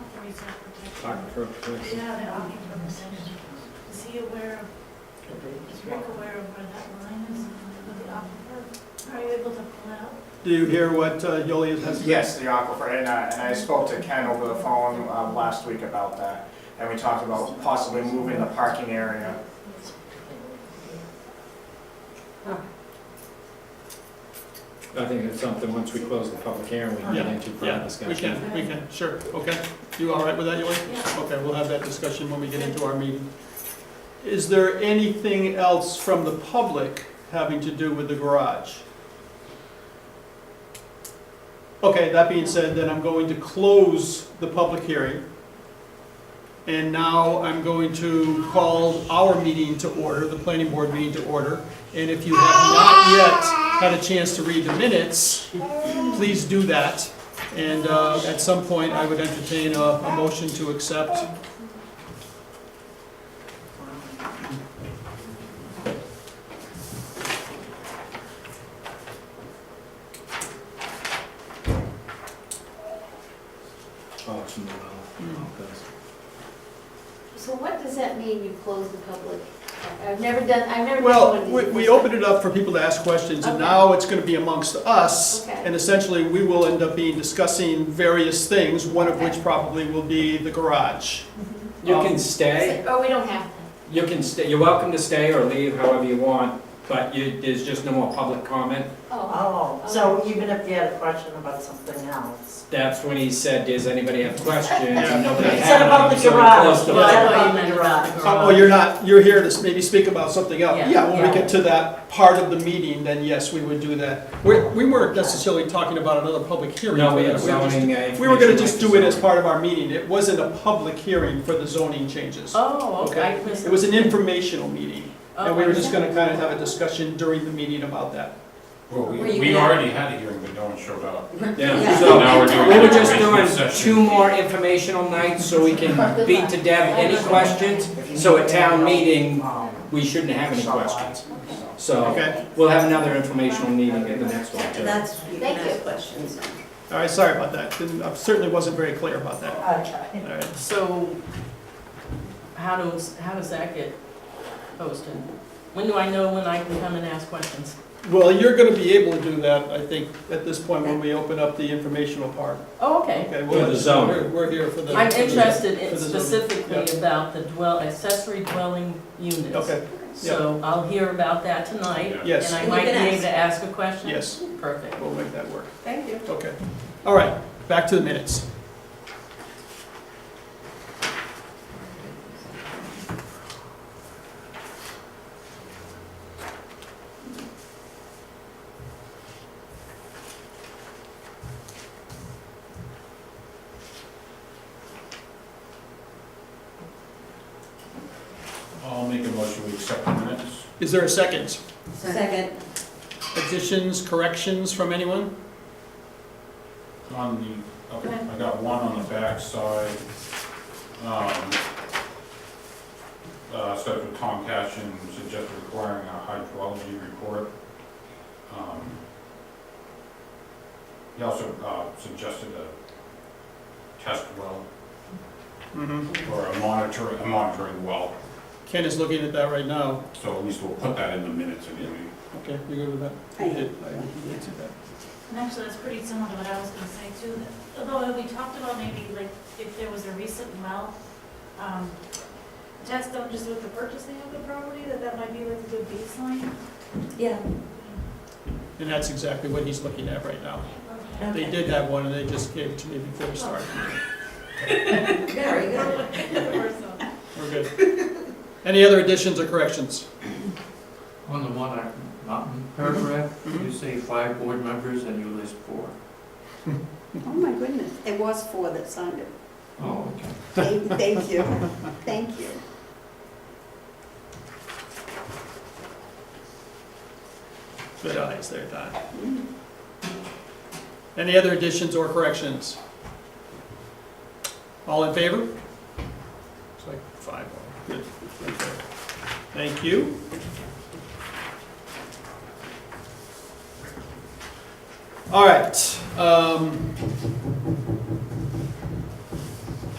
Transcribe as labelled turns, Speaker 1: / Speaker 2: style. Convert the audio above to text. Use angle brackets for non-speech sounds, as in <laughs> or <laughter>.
Speaker 1: Appraisal protection.
Speaker 2: aquifer protection.
Speaker 1: Yeah, the aquifer protection. Is he aware of, is Rick aware of where that line is with the aquifer? Are you able to pull out?
Speaker 3: Do you hear what uh, Yoli has?
Speaker 4: Yes, the aquifer, and, uh, and I spoke to Ken over the phone, um, last week about that. And we talked about possibly moving the parking area.
Speaker 2: I think that's something, once we close the public hearing, we can get
Speaker 3: Yeah,
Speaker 2: into further
Speaker 3: Yeah,
Speaker 2: discussion.
Speaker 3: we can, we can, sure, okay. You all right with that, Yoli?
Speaker 1: Yeah.
Speaker 3: Okay, we'll have that discussion when we get into our meeting. Is there anything else from the public having to do with the garage? Okay, that being said, then I'm going to close the public hearing. And now I'm going to call our meeting to order, the planning board meeting to order. And if you have not yet had a chance to read the minutes, please do that. And uh, at some point, I would entertain a, a motion to accept.
Speaker 2: Oh, it's in the well. Okay.
Speaker 5: So what does that mean, you close the public? I've never done, I've never done one
Speaker 3: Well,
Speaker 5: of
Speaker 3: we,
Speaker 5: these
Speaker 3: we
Speaker 5: before.
Speaker 3: opened it up for people to ask questions, and
Speaker 5: Okay.
Speaker 3: now it's gonna be amongst us.
Speaker 5: Okay.
Speaker 3: And essentially, we will end up being discussing various things, one of which
Speaker 5: Okay.
Speaker 3: probably will be the garage.
Speaker 6: You
Speaker 3: Um,
Speaker 6: can stay,
Speaker 5: Oh, we don't have
Speaker 6: you can stay, you're welcome to stay or leave however you want, but you, there's just no more public comment.
Speaker 5: that. Oh,
Speaker 7: Oh, so even if you had a question about something else?
Speaker 6: That's when he said, does anybody have questions?
Speaker 3: Yeah.
Speaker 6: And nobody
Speaker 7: He
Speaker 6: had.
Speaker 7: said about the
Speaker 6: them, so we
Speaker 7: garage,
Speaker 6: closed
Speaker 7: he
Speaker 6: the
Speaker 7: said
Speaker 6: public
Speaker 7: about the garage.
Speaker 3: Oh, you're not, you're here to s- maybe speak about something else.
Speaker 7: Yeah.
Speaker 3: Yeah, when we
Speaker 7: Yeah.
Speaker 3: get to that part of the meeting, then yes, we would do that. We, we weren't necessarily talking about another public hearing.
Speaker 6: No, we
Speaker 3: for
Speaker 6: have
Speaker 3: that. were just-
Speaker 6: zoning. uh,
Speaker 3: We were gonna
Speaker 6: information
Speaker 3: just
Speaker 6: like
Speaker 3: do it as
Speaker 6: zoning.
Speaker 3: part of our meeting. It wasn't a public hearing for the zoning changes.
Speaker 7: Oh, okay.
Speaker 3: It was an informational meeting, and we were just gonna kind of have a discussion during the meeting about that.
Speaker 8: Well, we,
Speaker 5: Were you
Speaker 8: we
Speaker 5: gonna-
Speaker 8: already had a hearing, but no one showed up.
Speaker 6: Yeah,
Speaker 5: Yeah.
Speaker 8: So now
Speaker 6: so
Speaker 8: we're doing.
Speaker 6: we were just
Speaker 8: information
Speaker 6: doing
Speaker 8: session.
Speaker 6: two more informational nights so we can beat to death any questions. So at town meeting,
Speaker 7: Oh.
Speaker 6: we shouldn't have any questions. So
Speaker 3: Okay,
Speaker 6: we'll have another informational meeting at the next one too.
Speaker 9: That's, you can
Speaker 5: Thank you.
Speaker 9: ask questions.
Speaker 3: all right, sorry about that. Didn't- I certainly wasn't very clear about that.
Speaker 7: Okay.
Speaker 3: All right.
Speaker 9: So how does, how does that get posted? When do I know when I can come and ask questions?
Speaker 3: Well, you're gonna be able to do that, I think, at this point when we open up the informational part.
Speaker 9: Oh, okay.
Speaker 3: Okay,
Speaker 6: For
Speaker 3: well,
Speaker 6: the zone.
Speaker 3: we're, we're here for the.
Speaker 9: I'm interested in
Speaker 3: For the zoning,
Speaker 9: specifically about the dwell, accessory dwelling units.
Speaker 3: Okay,
Speaker 9: So I'll hear about that tonight,
Speaker 8: Yeah.
Speaker 9: and
Speaker 3: yes,
Speaker 9: I I might might be need able to ask a question?
Speaker 3: yes,
Speaker 9: Perfect.
Speaker 3: we'll make that work.
Speaker 9: Thank you.
Speaker 3: Okay, all right, back to the minutes.
Speaker 8: I'll make a motion, we accept the minutes.
Speaker 3: Is there a second?
Speaker 9: Second.
Speaker 3: Additions, corrections from anyone?
Speaker 8: On the, okay, I got one on the backside. Um, uh, so for Tom Cashin suggested requiring a hydrology report. Um, He also, uh, suggested a test well
Speaker 3: Mm-hmm.
Speaker 8: or a monitor, a monitoring well.
Speaker 3: Ken is looking at that right now.
Speaker 8: So at least we'll put that in the minutes anyway.
Speaker 3: Okay, you good with that?
Speaker 9: I
Speaker 3: You
Speaker 9: am.
Speaker 3: did, I- you did see that.
Speaker 1: And actually, that's pretty similar to what I was gonna say too, that- although we talked about maybe like if there was a recent well, um, test them just with the purchasing of the property, that that might be like a good baseline.
Speaker 9: Yeah.
Speaker 3: And that's exactly what he's looking at right now.
Speaker 1: Okay.
Speaker 3: They did have one, and they just gave it to me before we started.
Speaker 9: Very
Speaker 1: <laughs>
Speaker 9: good.
Speaker 1: Or so.
Speaker 3: We're good. <laughs> Any other additions or corrections?
Speaker 10: On the one, I- mountain paragraph,
Speaker 3: Mm-hmm.
Speaker 10: you say five board members and you list four.
Speaker 9: Oh, my goodness. It was four that signed it.
Speaker 8: Um,
Speaker 10: Oh, okay.
Speaker 3: <laughs>
Speaker 9: Thank you. Thank you.
Speaker 3: Good eyes there, Don. Any other additions or corrections? All in favor? It's like five, all. good. Thank you. All right, um,